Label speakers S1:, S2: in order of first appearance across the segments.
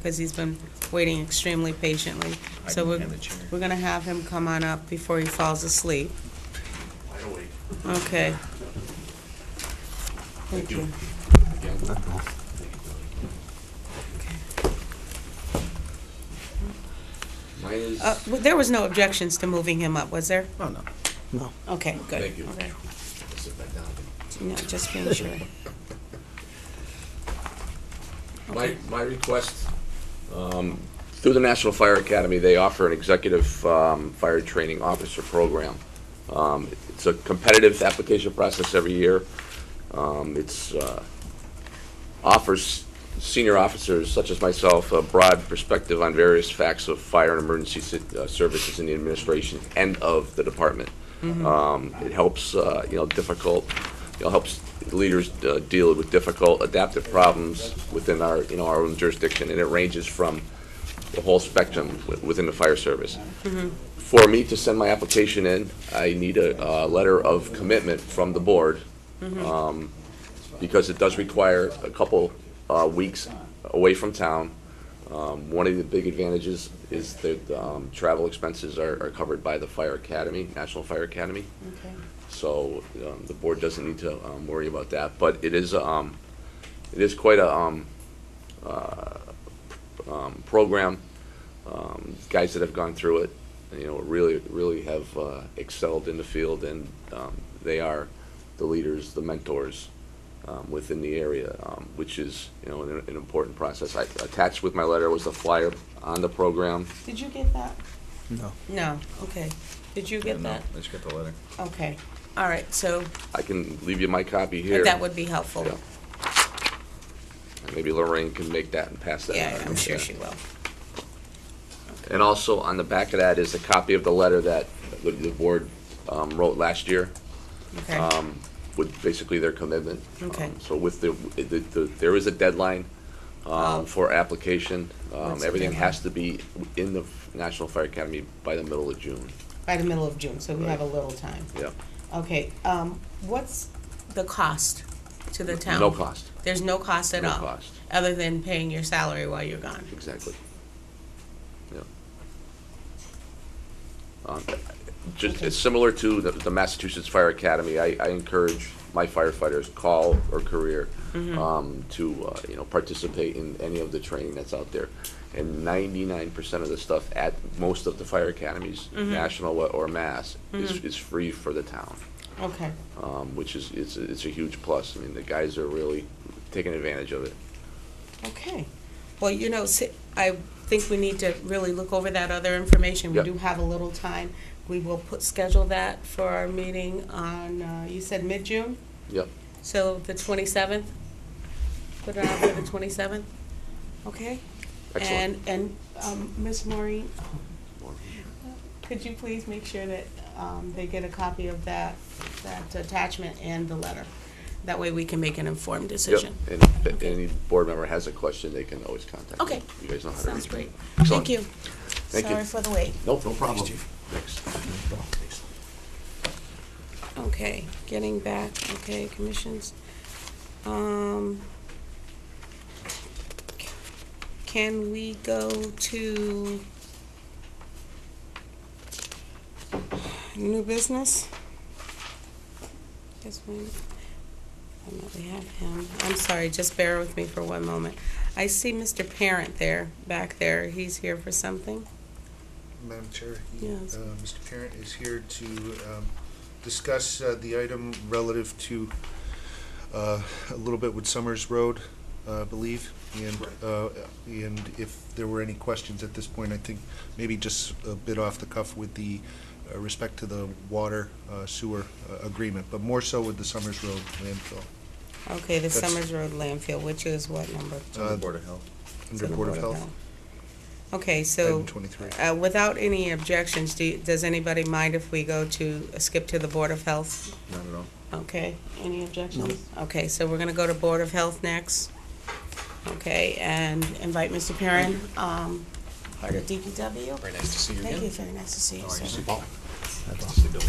S1: because he's been waiting extremely patiently.
S2: I
S1: So
S2: can
S1: we're,
S2: hand the chair.
S1: we're gonna have him come on up before he falls asleep. Okay. Thank you.
S3: Mine is,
S1: Uh, well, there was no objections to moving him up, was there?
S2: Oh, no.
S1: Okay, good.
S3: Thank you.
S1: Okay.
S3: sit back down.
S1: No, just being sure.
S3: My, my request, um, through the National Fire Academy, they offer an executive, um, fire training officer program. Um, it's a competitive application process every year. Um, it's, uh, offers senior officers such as myself a broad perspective on various facts of fire and emergency si- uh, services in the administration and of the department. Um, It helps, uh, you know, difficult, you know, helps leaders uh, deal with difficult adaptive problems within our, you know, our own jurisdiction, and it ranges from the whole spectrum wi- within the fire service. For me to send my application in, I need a, uh letter of commitment from the board um, because it does require a couple uh, weeks away from town. Um, One of the big advantages is that um, travel expenses are are covered by the Fire Academy, National Fire Academy.
S1: Okay.
S3: So um, the board doesn't need to um, worry about that. But it is, um, it is quite a um, uh, um, program. Um, Guys that have gone through it, you know, really, really have uh, excelled in the field, and um, they are the leaders, the mentors um, within the area, um, which is, you know, an an important process. I- Attached with my letter was the flyer on the program.
S1: Did you get that?
S2: No.
S1: No, okay. Did you get
S2: No,
S1: that?
S2: I just got the letter.
S1: Okay, all right, so
S3: I can leave you my copy here.
S1: that would be helpful.
S3: Yeah. And Maybe Lorraine can make that and pass that on.
S1: Yeah, I'm sure
S3: Yeah.
S1: she will.
S3: And also, on the back of that is a copy of the letter that the the board um, wrote last year
S1: Okay,
S3: um, with basically their commitment.
S1: Okay.
S3: Um, So with the, the- the- there is a deadline
S1: Oh.
S3: um, for application. Um,
S1: What's the
S3: Everything
S1: deadline?
S3: has to be in the National Fire Academy by the middle of June.
S1: by the middle of June, so we
S3: Right.
S1: have a little time.
S3: Yeah.
S1: Okay, um, what's the cost to the town?
S3: No cost.
S1: There's no cost at
S3: No
S1: all?
S3: cost.
S1: Other than paying your salary while you're gone?
S3: Exactly. Yeah. Um, Just, it's similar to the- the Massachusetts Fire Academy, I, I encourage my firefighters, call or career, um, to, uh, you know, participate in any of the training that's out there. And ninety-nine percent of the stuff at most of the fire academies, national or- or mass, is, is free for the town,
S1: Okay,
S3: um, which is, it's, it's a huge plus. I mean, the guys are really taking advantage of it.
S1: okay. Well, you know, si- I think we need to really look over that other information. We
S3: Yeah.
S1: do have a little time. We will put, schedule that for our meeting on, uh, you said mid-June?
S3: Yep.
S1: So the twenty-seventh? Put it out for the twenty-seventh? Okay?
S3: Excellent.
S1: And, and, um, Ms. Maureen, could you please make sure that, um, they get a copy of that, that attachment and the letter? That way we can make an informed
S3: Yep,
S1: decision.
S3: and if any board member has a question, they can always contact me.
S1: Okay.
S3: You guys know how to reach me.
S1: Sounds great.
S3: Excellent.
S1: Thank you.
S3: Thank you.
S1: Sorry for the wait.
S3: Nope, no problem. Next.
S1: Okay, getting back, okay, commissions. Um, can we go to new business? Yes, we, I know we have him. I'm sorry, just bear with me for one moment. I see Mr. Parent there, back there. He's here for something.
S4: Madam Chair, he-
S1: Yes.
S4: uh, Mr. Parent is here to um, discuss uh, the item relative to uh, a little bit with Summers Road, uh, I believe. And, uh, and if there were any questions at this point, I think maybe just a bit off the cuff with the uh, respect to the water uh, sewer uh, agreement, but more so with the Summers Road landfill.
S1: Okay, the
S4: That's-
S1: Summers Road landfill, which is what number?
S4: Uh,
S2: of Health.
S4: Under Board of Health,
S1: Okay, so,
S4: item twenty-three.
S1: uh, without any objections, do, does anybody mind if we go to, skip to the Board of Health?
S2: Not at all.
S1: Okay, any objections? Okay, so we're gonna go to Board of Health next. Okay, and invite Mr. Perrin, um, part of DPW.
S2: Very nice to see you again.
S1: Thank you, very nice to see you,
S2: How are you?
S1: sir.
S2: Nice to see Billy.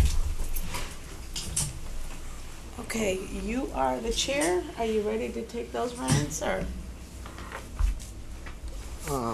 S1: Okay, you are the chair, are you ready to take those reins, or?
S5: uh,